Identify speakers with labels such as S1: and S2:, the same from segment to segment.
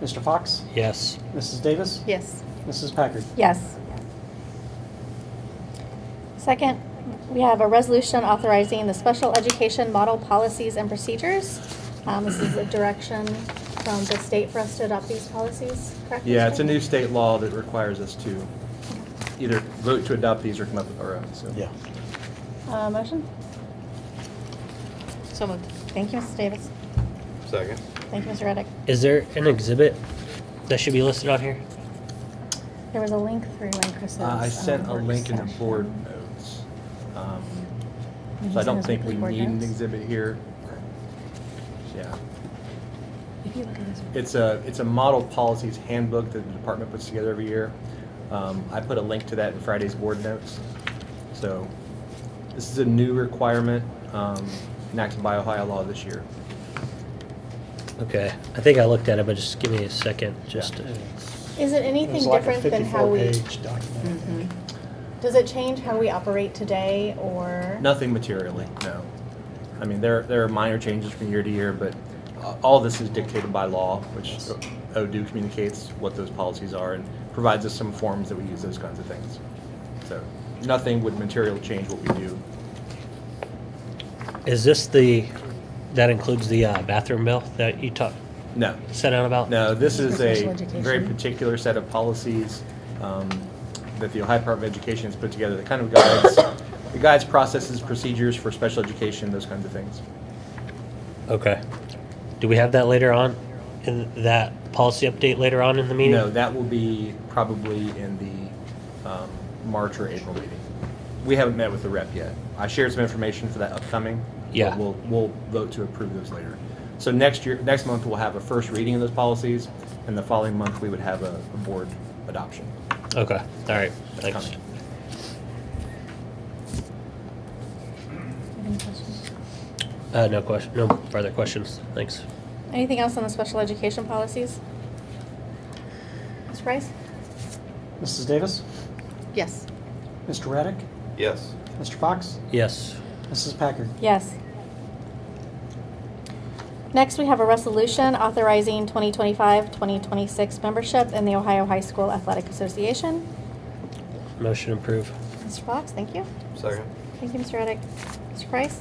S1: Mr. Fox,
S2: Yes.
S1: Mrs. Davis,
S3: Yes.
S1: Mrs. Packard.
S4: Yes. Second, we have a resolution authorizing the special education model policies and procedures. Um, This is a direction from the state for us to adopt these policies, correct?
S5: Yeah, it's a
S4: Mr.
S5: new state law that requires us to either vote to adopt these or come up with our own, so.
S1: Yeah.
S4: Uh, Motion?
S3: So moved.
S4: Thank you, Mrs. Davis.
S6: Second.
S4: Thank you, Mr. Reddick.
S2: Is there an exhibit that should be listed on here?
S4: There was a link through in Chris's.
S5: Uh, I
S4: um,
S5: sent a
S4: work
S5: link in the
S4: session.
S5: board notes. um,
S4: Did you
S5: So I
S4: send
S5: don't
S4: us
S5: think
S4: the
S5: we
S4: board
S5: need an
S4: notes?
S5: exhibit here. Yeah.
S4: If you look at this one.
S5: It's a, it's a model policies handbook that the department puts together every year. Um, I put a link to that in Friday's board notes. So this is a new requirement um, enacted by Ohio law this year.
S2: Okay, I think I looked at it, but just give me a second, just, to-
S4: Is it anything different than how we, Mm-hmm. does it change how we operate today or?
S5: Nothing materially, no. I mean, there, there are minor changes from year to year, but uh, all this is dictated by law, which ODU communicates what those policies are and provides us some forms that we use those kinds of things. So nothing would materially change what we do.
S2: is this the, that includes the uh, bathroom bill that you talked,
S5: No.
S2: set out about?
S5: No, this is a
S4: Special education.
S5: very particular set of policies um, that the Ohio Department of Education has put together that kind of guides, it guides processes, procedures for special education, those kinds of things.
S2: Okay. Do we have that later on, in that policy update later on in the meeting?
S5: No, that will be probably in the um, March or April meeting. We haven't met with the rep yet. I shared some information for that upcoming. but
S2: Yeah.
S5: We'll, we'll vote to approve those later. So next year, next month, we'll have a first reading of those policies, and the following month, we would have a a board adoption.
S2: Okay, all right,
S5: That's
S2: thanks.
S5: coming.
S4: Any questions?
S2: Uh, no question, no further questions, thanks.
S4: Anything else on the special education policies? Mr. Price?
S1: Mrs. Davis,
S3: Yes.
S1: Mr. Reddick,
S6: Yes.
S1: Mr. Fox,
S2: Yes,
S1: Mrs. Packard.
S4: Yes. Next, we have a resolution authorizing 2025-2026 membership in the Ohio High School Athletic Association.
S2: motion approved.
S4: Mr. Fox, thank you.
S6: Second.
S4: Thank you, Mr. Reddick. Mr. Price?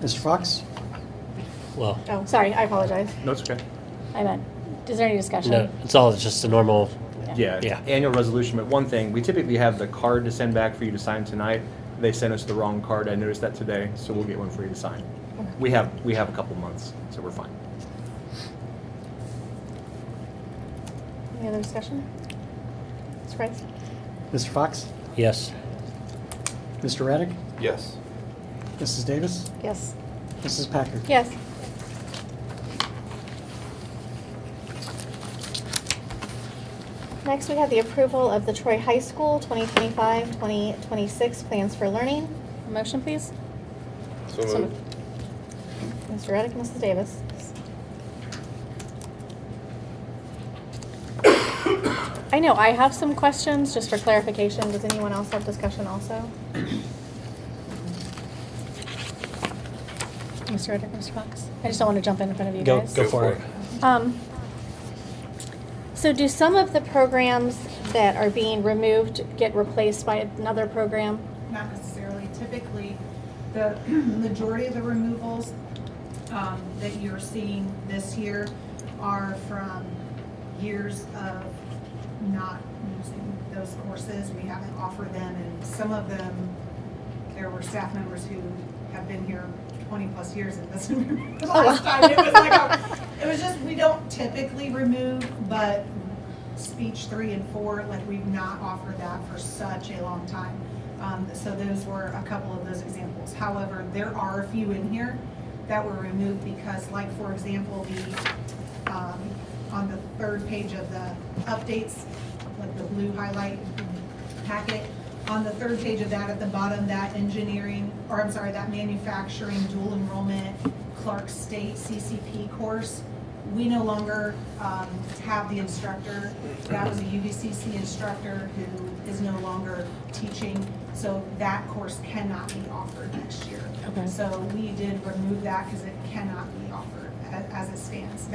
S1: Mr. Fox,
S2: Well,
S4: Oh, sorry, I apologize.
S5: No, it's okay.
S4: I meant, is there any discussion?
S2: no, it's all just the normal,
S5: Yeah,
S2: Yeah.
S5: annual resolution, but one thing, we typically have the card to send back for you to sign tonight. They sent us the wrong card, I noticed that today, so we'll get one for you to sign. We have, we have a couple months, so we're fine.
S4: Any other discussion? Mr. Price?
S1: Mr. Fox,
S2: yes.
S1: Mr. Reddick,
S6: Yes.
S1: Mrs. Davis,
S4: Yes.
S1: Mrs. Packard.
S4: Yes. Next, we have the approval of the Troy High School 2025-2026 Plans for Learning. A Motion, please.
S6: So
S3: So
S6: moved.
S3: moved.
S4: Mr. Reddick, Mrs. Davis. I know, I have some questions, just for clarification. Does anyone else have discussion also? Mr. Reddick, Mr. Fox? I just don't want to jump in in front of you
S2: Go,
S4: guys.
S2: go for it.
S4: Um, so do some of the programs that are being removed get replaced by another program?
S7: not necessarily. Typically, the majority of the removals um, that you're seeing this year are from years of not using those courses. We haven't offered them, and some of them, there were staff members who have been here 20-plus years and doesn't remember the last time. It was like, a- it was just, we don't typically remove, but speech three and four, like we've not offered that for such a long time. Um, so those were a couple of those examples. However, there are a few in here that were removed because like, for example, the, um, on the third page of the updates, like the blue highlight packet, on the third page of that, at the bottom, that engineering, or I'm sorry, that manufacturing dual enrollment Clark State CCP course, we no longer um, have the instructor. That was a UVCC instructor who is no longer teaching, so that course cannot be offered next year.
S4: Okay.
S7: So we did remove that because it cannot be offered a- as it stands.